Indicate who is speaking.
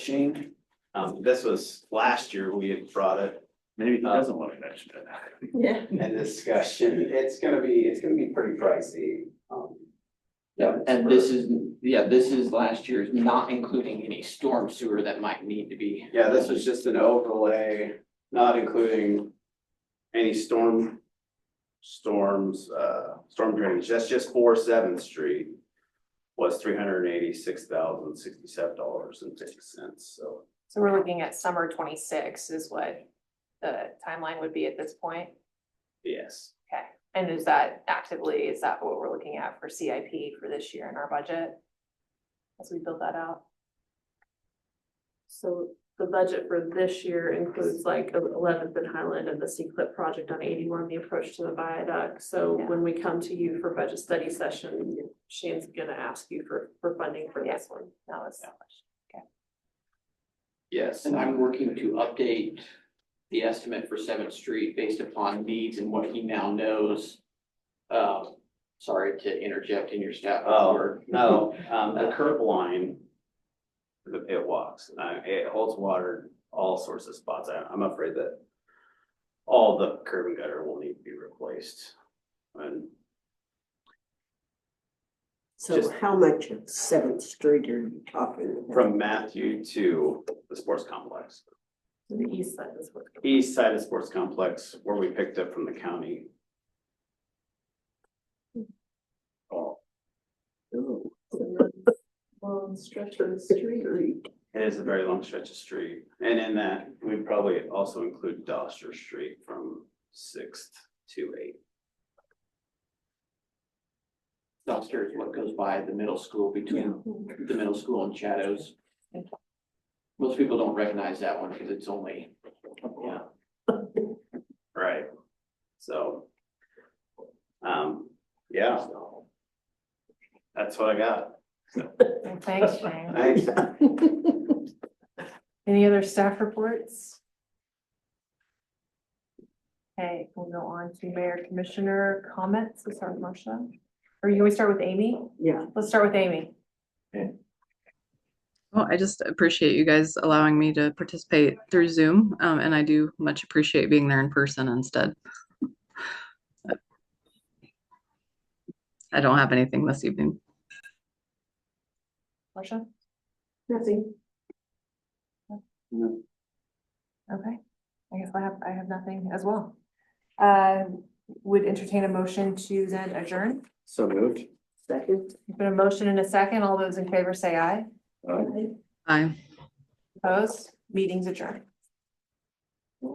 Speaker 1: machine. Um, this was last year we had brought it
Speaker 2: Maybe he
Speaker 1: Uh,
Speaker 2: doesn't want to mention it.
Speaker 3: Yeah.
Speaker 1: in discussion. It's gonna be, it's gonna be pretty pricey. Um,
Speaker 4: Yeah, and this is, yeah, this is last year's, not including any storm sewer that might need to be.
Speaker 1: Yeah, this was just an overlay, not including any storm, storms, uh, storm drainage. That's just for Seventh Street. Was three hundred and eighty-six thousand, sixty-seven dollars and fifty cents, so.
Speaker 3: So we're looking at summer twenty-six is what the timeline would be at this point?
Speaker 1: Yes,
Speaker 3: Okay, and is that actively, is that what we're looking at for CIP for this year in our budget? As we build that out?
Speaker 5: So the budget for this year includes like eleventh and Highland and the C clip project on eighty-one, the approach to the viaduct. So
Speaker 3: Yeah.
Speaker 5: when we come to you for budget study session, Shane's gonna ask you for, for funding for this one.
Speaker 3: No, it's,
Speaker 1: yes.
Speaker 4: And I'm working to update the estimate for Seventh Street based upon needs and what he now knows. Uh, sorry to interject in your staff
Speaker 1: Oh,
Speaker 4: report.
Speaker 1: no, um, the curb line. the- It walks, uh, it holds water, all sorts of spots, I, I'm afraid that. All the curb and gutter will need to be replaced. And
Speaker 6: So
Speaker 1: Just-
Speaker 6: how much of Seventh Street are you talking about?
Speaker 1: from Matthew to the sports complex,
Speaker 5: The east side is what.
Speaker 1: east side of sports complex, where we picked up from the county. Oh,
Speaker 6: Oh,
Speaker 5: Long stretch of the street.
Speaker 6: Street.
Speaker 1: it is a very long stretch of street, and in that, we'd probably also include Doster Street from Sixth to Eighth.
Speaker 4: Dumpster is what goes by the middle school between the middle school and Shadows. Most people don't recognize that one because it's only, yeah,
Speaker 1: Right. So. Um, yeah,
Speaker 4: so.
Speaker 1: that's what I got.
Speaker 3: Well, thanks, Shane.
Speaker 1: Thanks.
Speaker 3: Any other staff reports? Okay, we'll go on to mayor commissioner comments. Let's start with Marcia. Or you always start with Amy?
Speaker 6: Yeah,
Speaker 3: Let's start with Amy.
Speaker 7: Well, I just appreciate you guys allowing me to participate through Zoom, um, and I do much appreciate being there in person instead. I don't have anything this evening.
Speaker 3: Marcia?
Speaker 6: nothing.
Speaker 3: Okay, I guess I have, I have nothing as well. Uh, would entertain a motion to then adjourn.
Speaker 1: So moved.
Speaker 6: Second.
Speaker 3: There's Been a motion and a second. All those in favor say aye.
Speaker 2: Uh,
Speaker 6: Aye.
Speaker 7: Bye.
Speaker 3: Opposed? Meeting's adjourned.